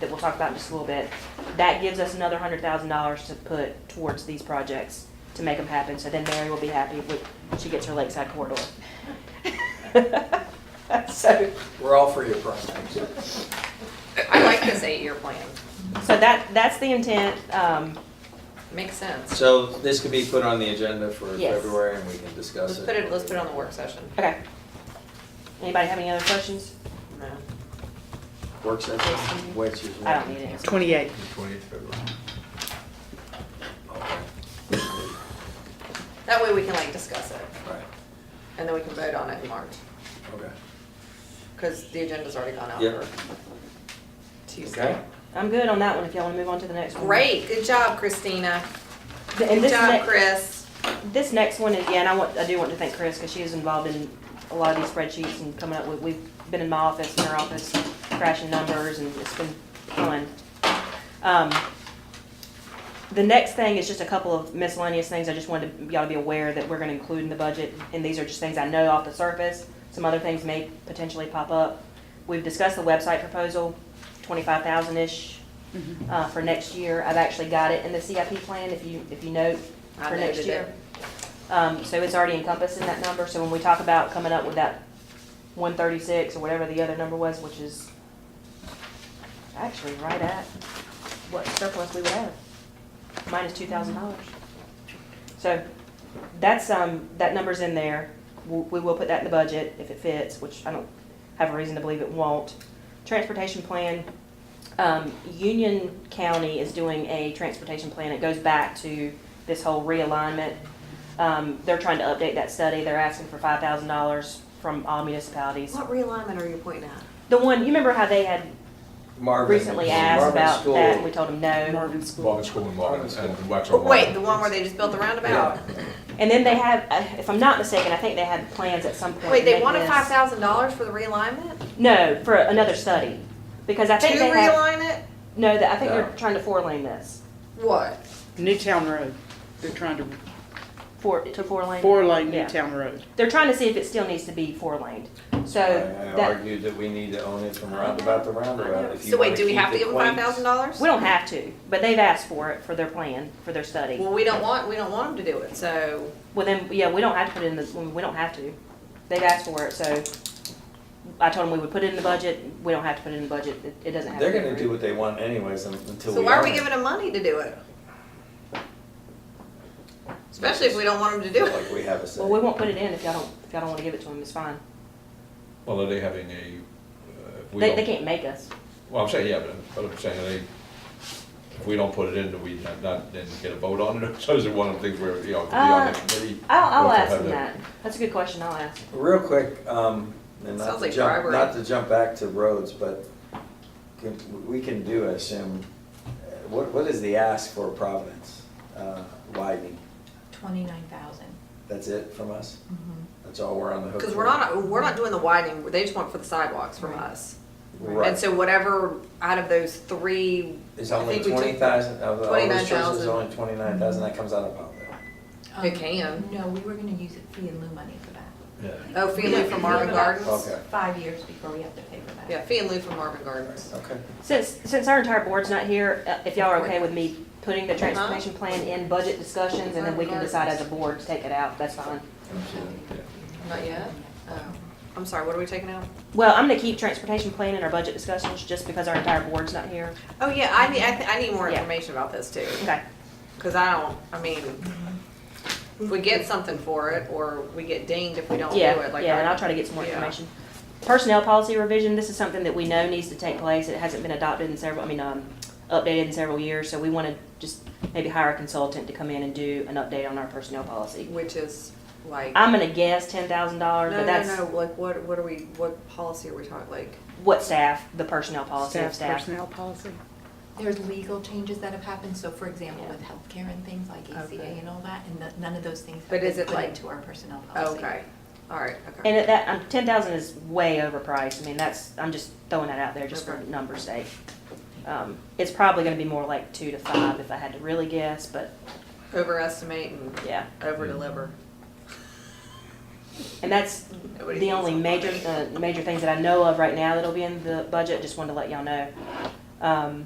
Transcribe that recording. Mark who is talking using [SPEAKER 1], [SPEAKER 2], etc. [SPEAKER 1] that we'll talk about in just a little bit, that gives us another hundred thousand dollars to put towards these projects to make them happen, so then Mary will be happy when she gets her lakeside corridor. So,
[SPEAKER 2] We're all for your primaries.
[SPEAKER 3] I like this eight-year plan.
[SPEAKER 1] so that, that's the intent, um,
[SPEAKER 3] Makes sense.
[SPEAKER 2] So this could be put on the agenda for
[SPEAKER 1] Yes.
[SPEAKER 2] February and we can discuss
[SPEAKER 3] Let's
[SPEAKER 2] it.
[SPEAKER 3] put it, let's put it on the work session.
[SPEAKER 1] okay. Anybody have any other questions?
[SPEAKER 3] No.
[SPEAKER 2] Work session, which is.
[SPEAKER 1] I don't need it.
[SPEAKER 4] Twenty-eight.
[SPEAKER 2] Twentieth February.
[SPEAKER 3] That way we can like discuss it,
[SPEAKER 2] Right,
[SPEAKER 3] and then we can vote on it in March,
[SPEAKER 2] okay.
[SPEAKER 3] because the agenda's already gone out
[SPEAKER 2] Yep.
[SPEAKER 3] for Tuesday.
[SPEAKER 2] Okay.
[SPEAKER 1] I'm good on that one, if y'all wanna move on to the next one.
[SPEAKER 3] Great, good job, Christina.
[SPEAKER 1] And
[SPEAKER 3] Good
[SPEAKER 1] this
[SPEAKER 3] job,
[SPEAKER 1] next,
[SPEAKER 3] Chris.
[SPEAKER 1] this next one is, yeah, and I want, I do want to thank Chris, because she is involved in a lot of these spreadsheets and coming up with, we've been in my office, in her office, crashing numbers, and it's been fun. Um, The next thing is just a couple of miscellaneous things I just wanted y'all to be aware that we're gonna include in the budget, and these are just things I know off the surface. Some other things may potentially pop up. We've discussed the website proposal, twenty-five thousand-ish,
[SPEAKER 3] Mm-hmm.
[SPEAKER 1] uh, for next year. I've actually got it in the CIP plan, if you, if you note,
[SPEAKER 3] I
[SPEAKER 1] for next
[SPEAKER 3] noted
[SPEAKER 1] year. Um, so it's already encompassed in that number, so when we talk about coming up with that one thirty-six or whatever the other number was, which is actually right at what surplus we would have, minus two thousand dollars. So that's, um, that number's in there. We, we will put that in the budget if it fits, which I don't have a reason to believe it won't. Transportation plan, um, Union County is doing a transportation plan. It goes back to this whole realignment. Um, they're trying to update that study. They're asking for five thousand dollars from all municipalities.
[SPEAKER 3] What realignment are you pointing at?
[SPEAKER 1] The one, you remember how they had
[SPEAKER 2] Marvin.
[SPEAKER 1] recently asked
[SPEAKER 2] Marvin
[SPEAKER 1] about
[SPEAKER 2] School.
[SPEAKER 1] that, and we told them no.
[SPEAKER 4] Marvin School.
[SPEAKER 5] Walking school and walking and
[SPEAKER 3] Oh,
[SPEAKER 5] Waxaw.
[SPEAKER 3] Wait, the one where they just built the roundabout?
[SPEAKER 1] And then they have, uh, if I'm not mistaken, I think they had plans at some point.
[SPEAKER 3] Wait,
[SPEAKER 1] to
[SPEAKER 3] they
[SPEAKER 1] make
[SPEAKER 3] wanted
[SPEAKER 1] this-
[SPEAKER 3] five thousand dollars for the realignment?
[SPEAKER 1] No, for another study, because I
[SPEAKER 3] To
[SPEAKER 1] think they have,
[SPEAKER 3] realign it?
[SPEAKER 1] no, that, I think they're
[SPEAKER 2] No.
[SPEAKER 1] trying to four lane this,
[SPEAKER 3] What?
[SPEAKER 4] Newtown Road. They're trying to,
[SPEAKER 1] four, to four lane.
[SPEAKER 4] four lane
[SPEAKER 1] Yeah.
[SPEAKER 4] Newtown Road.
[SPEAKER 1] They're trying to see if it still needs to be four laned, so
[SPEAKER 2] I I
[SPEAKER 1] that,
[SPEAKER 2] argued that we need to own it from roundabout to roundabout. If you
[SPEAKER 3] So wait,
[SPEAKER 2] wanna
[SPEAKER 3] do we
[SPEAKER 2] keep
[SPEAKER 3] have to
[SPEAKER 2] the
[SPEAKER 3] give them
[SPEAKER 2] quaint-
[SPEAKER 3] five thousand dollars?
[SPEAKER 1] we don't have to, but they've asked for it for their plan, for their study.
[SPEAKER 3] Well, we don't want, we don't want them to do it, so
[SPEAKER 1] Well, then, yeah, we don't have to put it in the, we- we don't have to. They've asked for it, so I told them we would put it in the budget. We don't have to put it in the budget. It, it doesn't have to.
[SPEAKER 2] They're
[SPEAKER 1] be
[SPEAKER 2] gonna do
[SPEAKER 1] approved.
[SPEAKER 2] what they want anyways un- until we.
[SPEAKER 3] So why are
[SPEAKER 2] own
[SPEAKER 3] we
[SPEAKER 2] it.
[SPEAKER 3] giving them money to do it? Especially if we don't want them to do
[SPEAKER 2] Like
[SPEAKER 3] it.
[SPEAKER 2] we have a say.
[SPEAKER 1] Well, we won't put it in if y'all don't, if y'all don't wanna give it to them, it's fine.
[SPEAKER 5] Well, are they having a, uh, if we
[SPEAKER 1] They, they
[SPEAKER 5] don't,
[SPEAKER 1] can't make us.
[SPEAKER 5] well, I'm saying, yeah, but, but I'm saying, they, if we don't put it in, do we not, not, then get a vote on it? So is it one of the things where, you know, it could be on the
[SPEAKER 1] Uh,
[SPEAKER 5] committee?
[SPEAKER 1] I'll, I'll
[SPEAKER 5] We'll
[SPEAKER 1] ask
[SPEAKER 5] have
[SPEAKER 1] them
[SPEAKER 5] the-
[SPEAKER 1] that. That's a good question, I'll ask.
[SPEAKER 2] Real quick, um, and not
[SPEAKER 3] Sounds
[SPEAKER 2] to
[SPEAKER 3] like
[SPEAKER 2] jump,
[SPEAKER 3] bribery.
[SPEAKER 2] not to jump back to roads, but can- we can do, I assume, uh, what, what is the ask for Providence uh, widening?
[SPEAKER 6] Twenty-nine thousand.
[SPEAKER 2] That's it from us? That's all we're on the hook for?
[SPEAKER 3] Mm-hmm. Because we're not, we're not doing the widening, they just want for the sidewalks from us. And
[SPEAKER 2] Right.
[SPEAKER 3] so whatever, out of those three,
[SPEAKER 2] It's
[SPEAKER 3] I
[SPEAKER 2] only
[SPEAKER 3] think we took-
[SPEAKER 2] twenty thousand, of all the resources, it's
[SPEAKER 3] 29,000.
[SPEAKER 2] only twenty-nine thousand, that comes out of Potbelly.
[SPEAKER 3] It can.
[SPEAKER 6] Um, No, we were gonna use it fee and lieu money for that.
[SPEAKER 5] Yeah.
[SPEAKER 3] oh, fee and lieu from Marvin
[SPEAKER 6] We have about
[SPEAKER 3] Gardens.
[SPEAKER 2] Okay.
[SPEAKER 6] Five years before we have to pay for that.
[SPEAKER 3] Yeah, fee and lieu from Marvin Gardens.
[SPEAKER 2] Okay.
[SPEAKER 1] Since, since our entire board's not here, uh, if y'all are okay with me putting the
[SPEAKER 3] Uh-huh.
[SPEAKER 1] transportation plan in budget discussions and then we can decide as a board to take it out, that's fine.
[SPEAKER 3] Not yet? Oh, I'm sorry, what are we taking out?
[SPEAKER 1] Well, I'm gonna keep transportation plan in our budget discussions just because our entire board's not here.
[SPEAKER 3] Oh, yeah, I need, I, th- I need more
[SPEAKER 1] Yeah.
[SPEAKER 3] information about this too.
[SPEAKER 1] Okay.
[SPEAKER 3] Because I don't, I mean, if we get something for it, or we get dinged if we don't do it,
[SPEAKER 1] Yeah,
[SPEAKER 3] like.
[SPEAKER 1] yeah, and
[SPEAKER 3] I-
[SPEAKER 1] I'll try to get some more
[SPEAKER 3] Yeah.
[SPEAKER 1] information. Personnel policy revision, this is something that we know needs to take place. It hasn't been adopted in several, I mean, um, updated in several years, so we want to just maybe hire a consultant to come in and do an update on our personnel policy.
[SPEAKER 3] Which is like.
[SPEAKER 1] I'm gonna guess ten thousand dollars,
[SPEAKER 3] No,
[SPEAKER 1] but
[SPEAKER 3] no,
[SPEAKER 1] that's
[SPEAKER 3] no, like what, what are we, what policy are we talking, like?
[SPEAKER 1] what staff, the personnel policy of
[SPEAKER 4] Staff
[SPEAKER 1] staff.
[SPEAKER 4] personnel policy.
[SPEAKER 6] There's legal changes that have happened, so for example, with healthcare and things like
[SPEAKER 3] Okay.
[SPEAKER 6] ACA and all that, and that- none of those things have
[SPEAKER 3] But is
[SPEAKER 6] been
[SPEAKER 3] it
[SPEAKER 6] put
[SPEAKER 3] like-
[SPEAKER 6] into our personnel policy.
[SPEAKER 3] Okay, all right, okay.
[SPEAKER 1] And at that, um, ten thousand is way overpriced. I mean, that's, I'm just throwing that out there just for
[SPEAKER 3] Okay.
[SPEAKER 1] numbers sake. Um, it's probably gonna be more like two to five if I had to really guess, but
[SPEAKER 3] Overestimate and
[SPEAKER 1] yeah.
[SPEAKER 3] overdeliver.
[SPEAKER 1] And that's
[SPEAKER 3] Nobody
[SPEAKER 1] the
[SPEAKER 3] thinks
[SPEAKER 1] only
[SPEAKER 3] I'm
[SPEAKER 1] major, uh, major things that I know of right now that'll be in the budget, just wanted to let y'all know. Um,